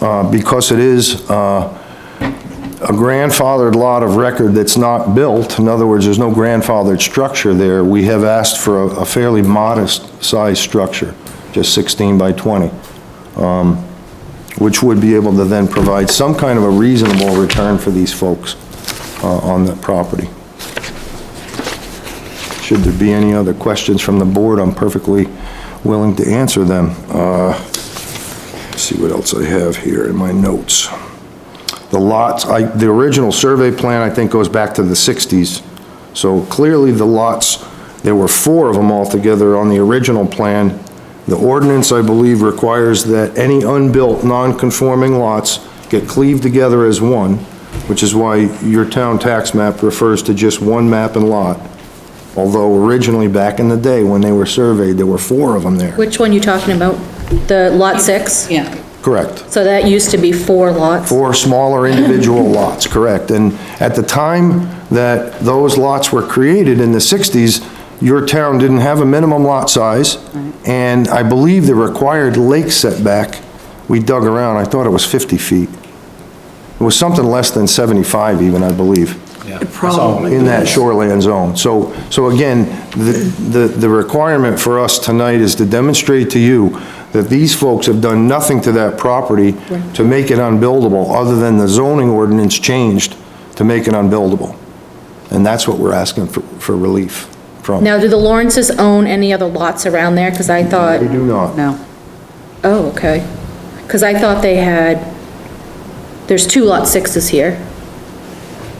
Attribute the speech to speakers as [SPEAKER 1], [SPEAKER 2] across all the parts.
[SPEAKER 1] uh, because it is uh, a grandfathered lot of record that's not built, in other words, there's no grandfathered structure there, we have asked for a- a fairly modest-sized structure, just 16 by 20, um, which would be able to then provide some kind of a reasonable return for these folks uh, on the property. Should there be any other questions from the board, I'm perfectly willing to answer them. Uh, See what else I have here in my notes. The lots, I, the original survey plan, I think, goes back to the 60s. So clearly, the lots, there were four of them altogether on the original plan. The ordinance, I believe, requires that any unbuilt, non-conforming lots get cleaved together as one, which is why your town tax map refers to just one map and lot. Although originally, back in the day, when they were surveyed, there were four of them there.
[SPEAKER 2] Which one you talking about? The lot six?
[SPEAKER 3] Yeah,
[SPEAKER 1] Correct.
[SPEAKER 2] So that used to be four lots?
[SPEAKER 1] Four smaller individual lots, correct. And at the time that those lots were created in the 60s, your town didn't have a minimum lot size, and I believe the required lake setback, we dug around, I thought it was 50 feet. It was something less than 75 even, I believe. In that shoreland zone. So, so again, the, the the requirement for us tonight is to demonstrate to you that these folks have done nothing to that property to make it unbuildable, other than the zoning ordinance changed to make it unbuildable. And that's what we're asking for, for relief from.
[SPEAKER 2] Now, do the Lawrences own any other lots around there? Because I thought,
[SPEAKER 1] We do not.
[SPEAKER 3] no.
[SPEAKER 2] oh, okay. Because I thought they had, there's two lot sixes here.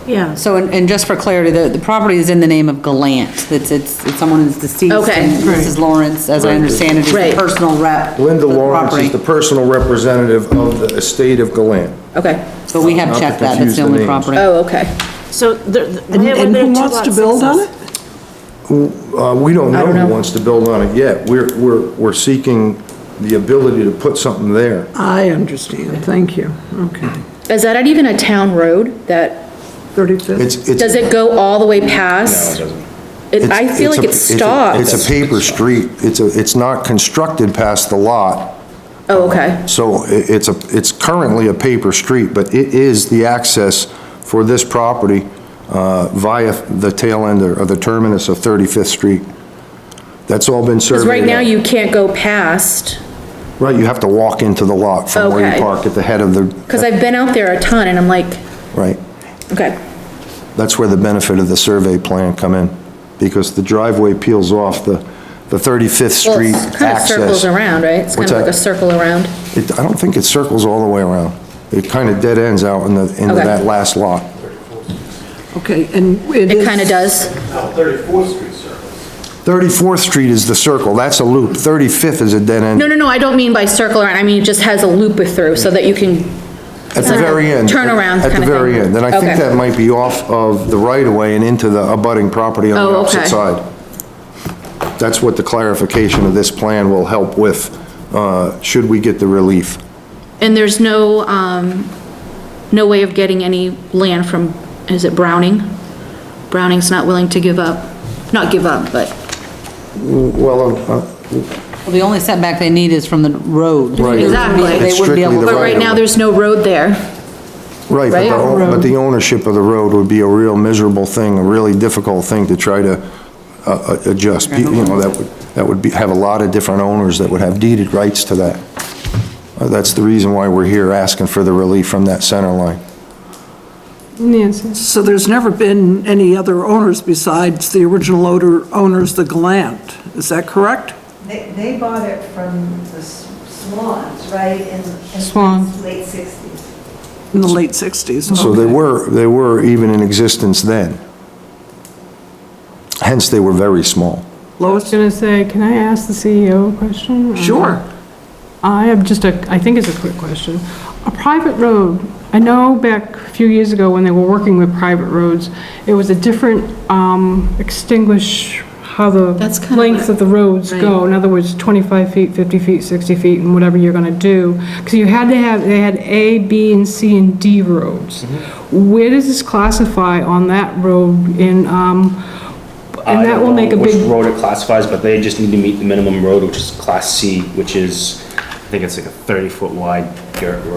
[SPEAKER 3] Yeah. So, and, and just for clarity, the, the property is in the name of Galant. It's, it's, it's someone who's deceased.
[SPEAKER 2] Okay.
[SPEAKER 3] And Mrs. Lawrence, as I understand it, is the
[SPEAKER 2] Right.
[SPEAKER 3] personal rep.
[SPEAKER 1] Linda
[SPEAKER 3] for the
[SPEAKER 1] Lawrence is the
[SPEAKER 3] property.
[SPEAKER 1] personal representative of the estate of Galant.
[SPEAKER 2] Okay.
[SPEAKER 3] But we have
[SPEAKER 1] Not to
[SPEAKER 3] checked that,
[SPEAKER 1] confuse
[SPEAKER 3] that's the
[SPEAKER 1] the
[SPEAKER 3] only
[SPEAKER 1] names.
[SPEAKER 3] property.
[SPEAKER 2] Oh, okay.
[SPEAKER 4] So there,
[SPEAKER 5] And
[SPEAKER 4] where were
[SPEAKER 5] and
[SPEAKER 4] there
[SPEAKER 5] who
[SPEAKER 4] two
[SPEAKER 5] wants to
[SPEAKER 4] lot
[SPEAKER 5] build on
[SPEAKER 4] sixes?
[SPEAKER 5] it?
[SPEAKER 1] Uh, we don't
[SPEAKER 2] I
[SPEAKER 1] know
[SPEAKER 2] don't
[SPEAKER 1] who
[SPEAKER 2] know.
[SPEAKER 1] wants to build on it yet. We're, we're, we're seeking the ability to put something there.
[SPEAKER 5] I understand, thank you, okay.
[SPEAKER 2] Is that even a town road that,
[SPEAKER 5] 35th,
[SPEAKER 1] It's, it's.
[SPEAKER 2] does it go all the way past? It- I feel
[SPEAKER 1] it's-
[SPEAKER 2] like it
[SPEAKER 1] it's a- it's a- It's a
[SPEAKER 2] stops.
[SPEAKER 1] paper street. It's a, it's not constructed past the lot.
[SPEAKER 2] Oh, okay.
[SPEAKER 1] So i- it's a, it's currently a paper street, but it is the access for this property uh, via the tail end or or the terminus of 35th Street. That's all been surveyed.
[SPEAKER 2] Because right now
[SPEAKER 1] out.
[SPEAKER 2] you can't go past,
[SPEAKER 1] Right, you have to walk into the lot from where you
[SPEAKER 2] Okay.
[SPEAKER 1] park at the head of the.
[SPEAKER 2] because I've been out there a ton and I'm like,
[SPEAKER 1] Right.
[SPEAKER 2] okay.
[SPEAKER 1] That's where the benefit of the survey plan come in, because the driveway peels off the, the 35th
[SPEAKER 2] Well,
[SPEAKER 1] Street access.
[SPEAKER 2] it kind of circles around, right? It's kind
[SPEAKER 1] What's
[SPEAKER 2] of like
[SPEAKER 1] that?
[SPEAKER 2] a circle around.
[SPEAKER 1] It, I don't think it circles all the way around. It kind of dead ends out in the, into
[SPEAKER 2] Okay.
[SPEAKER 1] that last lot.
[SPEAKER 5] okay, and it
[SPEAKER 2] It
[SPEAKER 5] is...
[SPEAKER 2] kind of does.
[SPEAKER 6] No, 34th Street Circle.
[SPEAKER 1] 34th Street is the circle, that's a loop. 35th is a dead end.
[SPEAKER 2] No, no, no, I don't mean by circle around, I mean it just has a loop through so that you can,
[SPEAKER 1] At the very end.
[SPEAKER 2] Turnaround
[SPEAKER 1] At the
[SPEAKER 2] kinda thing.
[SPEAKER 1] very end. And I think
[SPEAKER 2] Okay.
[SPEAKER 1] that might be off of the right-of-way and into the abutting property on the
[SPEAKER 2] Oh, okay.
[SPEAKER 1] opposite side. That's what the clarification of this plan will help with, uh, should we get the relief.
[SPEAKER 2] and there's no, um, no way of getting any land from, is it Browning? Browning's not willing to give up, not give up, but
[SPEAKER 1] Well, uh,
[SPEAKER 3] Well, The only setback they need is from the road.
[SPEAKER 1] Right.
[SPEAKER 2] Exactly.
[SPEAKER 3] They
[SPEAKER 1] It's
[SPEAKER 3] wouldn't be
[SPEAKER 1] strictly the
[SPEAKER 3] able to-
[SPEAKER 2] but right now, there's no road there.
[SPEAKER 1] Right, but the,
[SPEAKER 2] Right?
[SPEAKER 1] o- but the ownership of the road would be a real miserable thing, a really difficult thing to try to uh, uh, adjust. You know, that would, that would be, have a lot of different owners that would have deeded rights to that. Uh, That's the reason why we're here asking for the relief from that center line.
[SPEAKER 5] So there's never been any other owners besides the original owner, owners, the Glant, is that correct?
[SPEAKER 7] They, they bought it from the S- Swans, right, in, in
[SPEAKER 3] Swan.
[SPEAKER 7] the late 60s.
[SPEAKER 5] In the late 60s?
[SPEAKER 1] So they
[SPEAKER 5] okay.
[SPEAKER 1] were, they were even in existence then. Hence, they were very small.
[SPEAKER 5] Lois?
[SPEAKER 8] I was gonna say, can I ask the CEO a question? Um,
[SPEAKER 5] Sure.
[SPEAKER 8] I have just a, I think it's a quick question. A private road, I know back a few years ago when they were working with private roads, it was a different, um, extinguish how the
[SPEAKER 2] That's kinda
[SPEAKER 8] length
[SPEAKER 2] what-
[SPEAKER 8] of the roads
[SPEAKER 2] right.
[SPEAKER 8] go. In other words, 25 feet, 50 feet, 60 feet, and whatever you're gonna do. Because you had to have, they had A, B, and C, and D roads.
[SPEAKER 6] Mm-hmm.
[SPEAKER 8] Where does this classify on that road in, um,
[SPEAKER 6] I
[SPEAKER 8] and that
[SPEAKER 6] don't
[SPEAKER 8] will
[SPEAKER 6] know
[SPEAKER 8] make a big...
[SPEAKER 6] Which road it classifies, but they just need to meet the minimum road, which is Class C, which is, I think it's like a 30-foot wide dirt road.